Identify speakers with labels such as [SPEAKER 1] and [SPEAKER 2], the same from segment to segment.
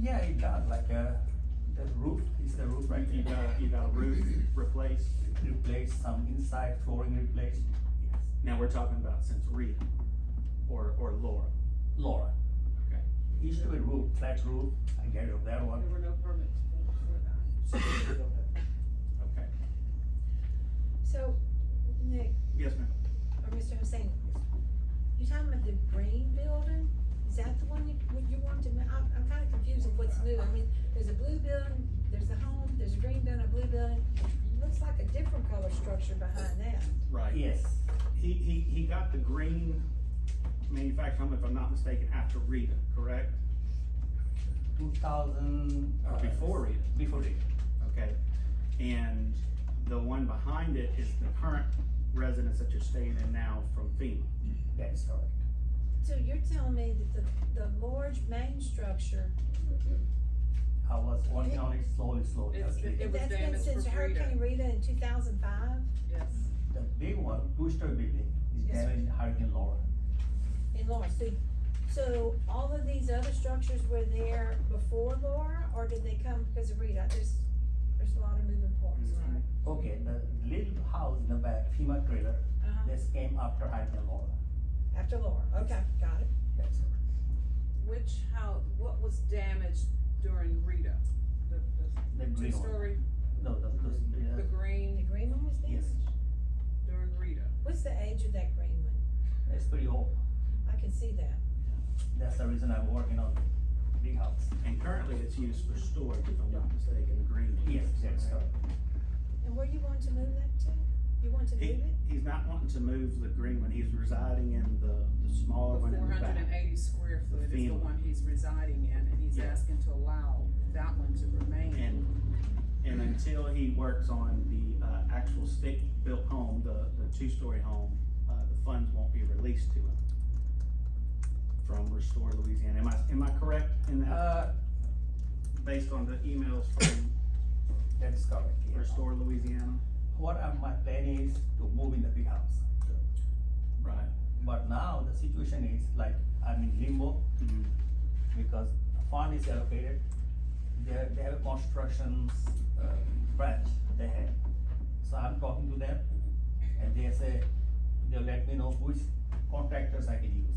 [SPEAKER 1] Yeah, it got like a, the roof, is the roof right
[SPEAKER 2] You
[SPEAKER 1] there.
[SPEAKER 2] got, you got a roof replaced.
[SPEAKER 1] Replace some inside flooring replaced. Yes.
[SPEAKER 2] Now we're talking about since Rita or, or Laura.
[SPEAKER 1] Laura,
[SPEAKER 2] Okay.
[SPEAKER 1] used to be roof, flat roof, I get rid of that one.
[SPEAKER 3] There were no permits for for that. So we don't have-
[SPEAKER 2] Okay.
[SPEAKER 4] So, Nick,
[SPEAKER 2] Yes, ma'am.
[SPEAKER 4] or Mr. Hussein, you're talking about the green building? Is that the one you, what you want to, ma- I'm, I'm kinda confused of what's new. I mean, there's a blue building, there's a home, there's a green building, a blue building. Looks like a different color structure behind that.
[SPEAKER 2] Right.
[SPEAKER 1] Yes,
[SPEAKER 2] He, he, he got the green manufactured home, if I'm not mistaken, after Rita, correct?
[SPEAKER 1] two thousand. uh,
[SPEAKER 2] Or before Rita.
[SPEAKER 1] Before it.
[SPEAKER 2] Okay. And the one behind it is the current residence that you're staying in now from FEMA.
[SPEAKER 1] that is correct.
[SPEAKER 4] So you're telling me that the, the large main structure,
[SPEAKER 1] I was working on it slowly, slowly.
[SPEAKER 3] It's-
[SPEAKER 1] actually.
[SPEAKER 3] it was
[SPEAKER 4] that's been
[SPEAKER 3] damaged
[SPEAKER 4] since
[SPEAKER 3] for Rita.
[SPEAKER 4] Hurricane Rita in two thousand five?
[SPEAKER 3] Yes.
[SPEAKER 1] The big one, two-story building, is
[SPEAKER 4] Yes, sir.
[SPEAKER 1] damaged Hurricane Laura.
[SPEAKER 4] in Lawrence, so, so all of these other structures were there before Laura, or did they come because of Rita? There's, there's a lot of moving parts.
[SPEAKER 2] Mhm.
[SPEAKER 1] Okay, the little house in the back, FEMA trailer,
[SPEAKER 4] Uh-huh,
[SPEAKER 1] this came after Hurricane Laura.
[SPEAKER 4] after Laura, okay, got it.
[SPEAKER 1] That's correct.
[SPEAKER 3] Which, how, what was damaged during Rita? The,
[SPEAKER 1] The
[SPEAKER 3] the
[SPEAKER 1] green one.
[SPEAKER 3] two-story,
[SPEAKER 1] No, the, the,
[SPEAKER 3] the
[SPEAKER 1] the,
[SPEAKER 4] And the
[SPEAKER 3] green
[SPEAKER 4] green one was
[SPEAKER 1] Yes.
[SPEAKER 4] damaged?
[SPEAKER 3] during Rita?
[SPEAKER 4] What's the age of that green one?
[SPEAKER 1] it's pretty old.
[SPEAKER 4] I can see that.
[SPEAKER 1] That's the reason I'm working on the big house.
[SPEAKER 2] And currently it's used for storage, if I'm not mistaken, the green. one.
[SPEAKER 1] Yes, that's correct.
[SPEAKER 4] And where you want to move that to? You want to move
[SPEAKER 2] He,
[SPEAKER 4] it?
[SPEAKER 2] he's not wanting to move the green one, he's residing in the, the
[SPEAKER 3] The
[SPEAKER 2] smaller one in
[SPEAKER 3] four
[SPEAKER 2] the
[SPEAKER 3] hundred and
[SPEAKER 2] back.
[SPEAKER 3] eighty square
[SPEAKER 2] The
[SPEAKER 3] foot is the
[SPEAKER 2] FEMA.
[SPEAKER 3] one he's residing in, and he's
[SPEAKER 2] Yeah.
[SPEAKER 3] asking to allow that one to remain.
[SPEAKER 2] And, and until he works on the, uh, actual stick-built home, the, the two-story home, uh, the funds won't be released to him from Restore Louisiana. Am I, am I correct in that,
[SPEAKER 1] Uh,
[SPEAKER 2] based on the emails from
[SPEAKER 1] that is correct, yeah.
[SPEAKER 2] Restore Louisiana?
[SPEAKER 1] What are my plan is to move in the big house.
[SPEAKER 2] Right.
[SPEAKER 1] But now the situation is like, I'm in limbo
[SPEAKER 2] Mhm.
[SPEAKER 1] because the fund is allocated. They have, they have a constructions, uh, branch they have. So I'm talking to them and they say, they'll let me know which contractors I can use.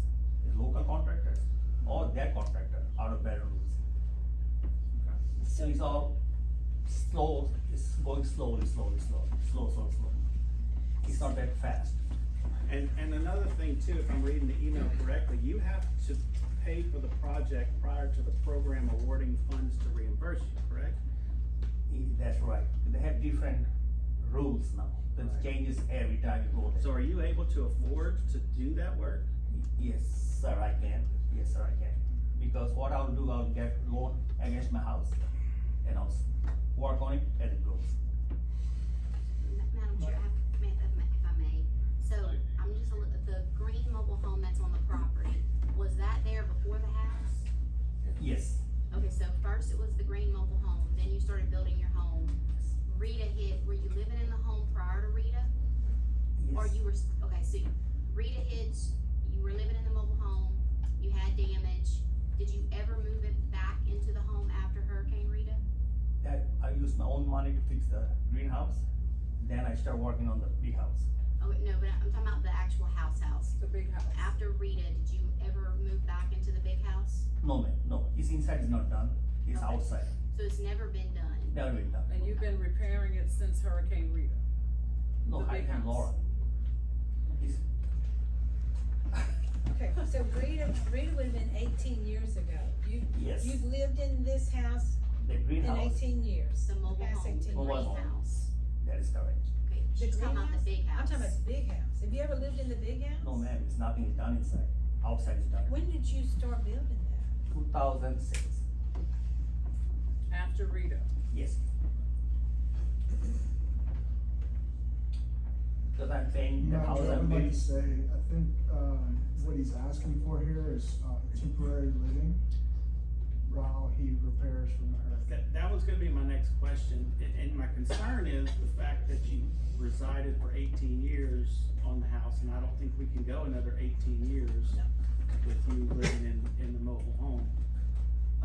[SPEAKER 1] The Local contractors or their contractor out of Baton Rouge. So it's all slow, it's going slowly, slowly, slowly, slow, slow, slow. It's not that fast.
[SPEAKER 2] And, and another thing too, if I'm reading the email correctly, you have to pay for the project prior to the program awarding funds to reimburse you, correct?
[SPEAKER 1] I- That's right. They have different rules now.
[SPEAKER 2] Right.
[SPEAKER 1] That changes every time you go there.
[SPEAKER 2] So are you able to afford to do that work?
[SPEAKER 1] Yes, sir, I can. Yes, sir, I can. Because what I'll do, I'll get loan against my house and I'll s- work on it as it goes.
[SPEAKER 5] Madam Chair, if- ma- if ma- if I may, so I'm just, a li- the green mobile home that's on the property, was that there before the house?
[SPEAKER 1] Yes,
[SPEAKER 5] Okay, so first it was the green mobile home, then you started building your home. Rita hit, were you living in the home prior to Rita? Or
[SPEAKER 1] yes,
[SPEAKER 5] you were, s- okay, so Rita hit, you were living in the mobile home, you had damage. Did you ever move it back into the home after Hurricane Rita?
[SPEAKER 1] that, I use my own money to fix the greenhouse. Then I start working on the big house.
[SPEAKER 5] Oh, wait, no, but I'm talking about the actual house house.
[SPEAKER 3] The big house.
[SPEAKER 5] After Rita, did you ever move back into the big house?
[SPEAKER 1] No, ma'am, no, it's inside is not done, it's
[SPEAKER 5] Okay.
[SPEAKER 1] outside,
[SPEAKER 5] So it's never been done.
[SPEAKER 1] never been done.
[SPEAKER 3] And you've been repairing it since Hurricane Rita?
[SPEAKER 1] No,
[SPEAKER 3] the
[SPEAKER 1] I
[SPEAKER 3] big
[SPEAKER 1] can
[SPEAKER 3] house.
[SPEAKER 1] Laura. It's,
[SPEAKER 4] Okay, so Rita, Rita would've been eighteen years ago. You,
[SPEAKER 1] yes,
[SPEAKER 4] you've lived in this house
[SPEAKER 1] the
[SPEAKER 4] in
[SPEAKER 1] greenhouse,
[SPEAKER 4] eighteen years.
[SPEAKER 5] The mobile
[SPEAKER 4] Past
[SPEAKER 5] home, the
[SPEAKER 4] 18
[SPEAKER 1] Mobile
[SPEAKER 5] green
[SPEAKER 1] home.
[SPEAKER 5] house.
[SPEAKER 1] that is correct.
[SPEAKER 5] Okay, she's talking about the big
[SPEAKER 4] I'm
[SPEAKER 5] house.
[SPEAKER 4] talking about the big house. Have you ever lived in the big house?
[SPEAKER 1] No, ma'am, it's nothing is done inside, outside is done,
[SPEAKER 4] When did you start building that?
[SPEAKER 1] two thousand six,
[SPEAKER 3] After Rita?
[SPEAKER 1] yes. Because I'm saying the
[SPEAKER 6] Madam
[SPEAKER 1] house
[SPEAKER 6] Chair,
[SPEAKER 1] I'm
[SPEAKER 6] I'd like
[SPEAKER 1] building,
[SPEAKER 6] to say, I think, um, what he's asking for here is, uh, temporary living while he repairs from the hurricane.
[SPEAKER 2] That, that was gonna be my next question, and, and my concern is the fact that you resided for eighteen years on the house, and I don't think we can go another eighteen years
[SPEAKER 4] No.
[SPEAKER 2] with you living in, in the mobile home.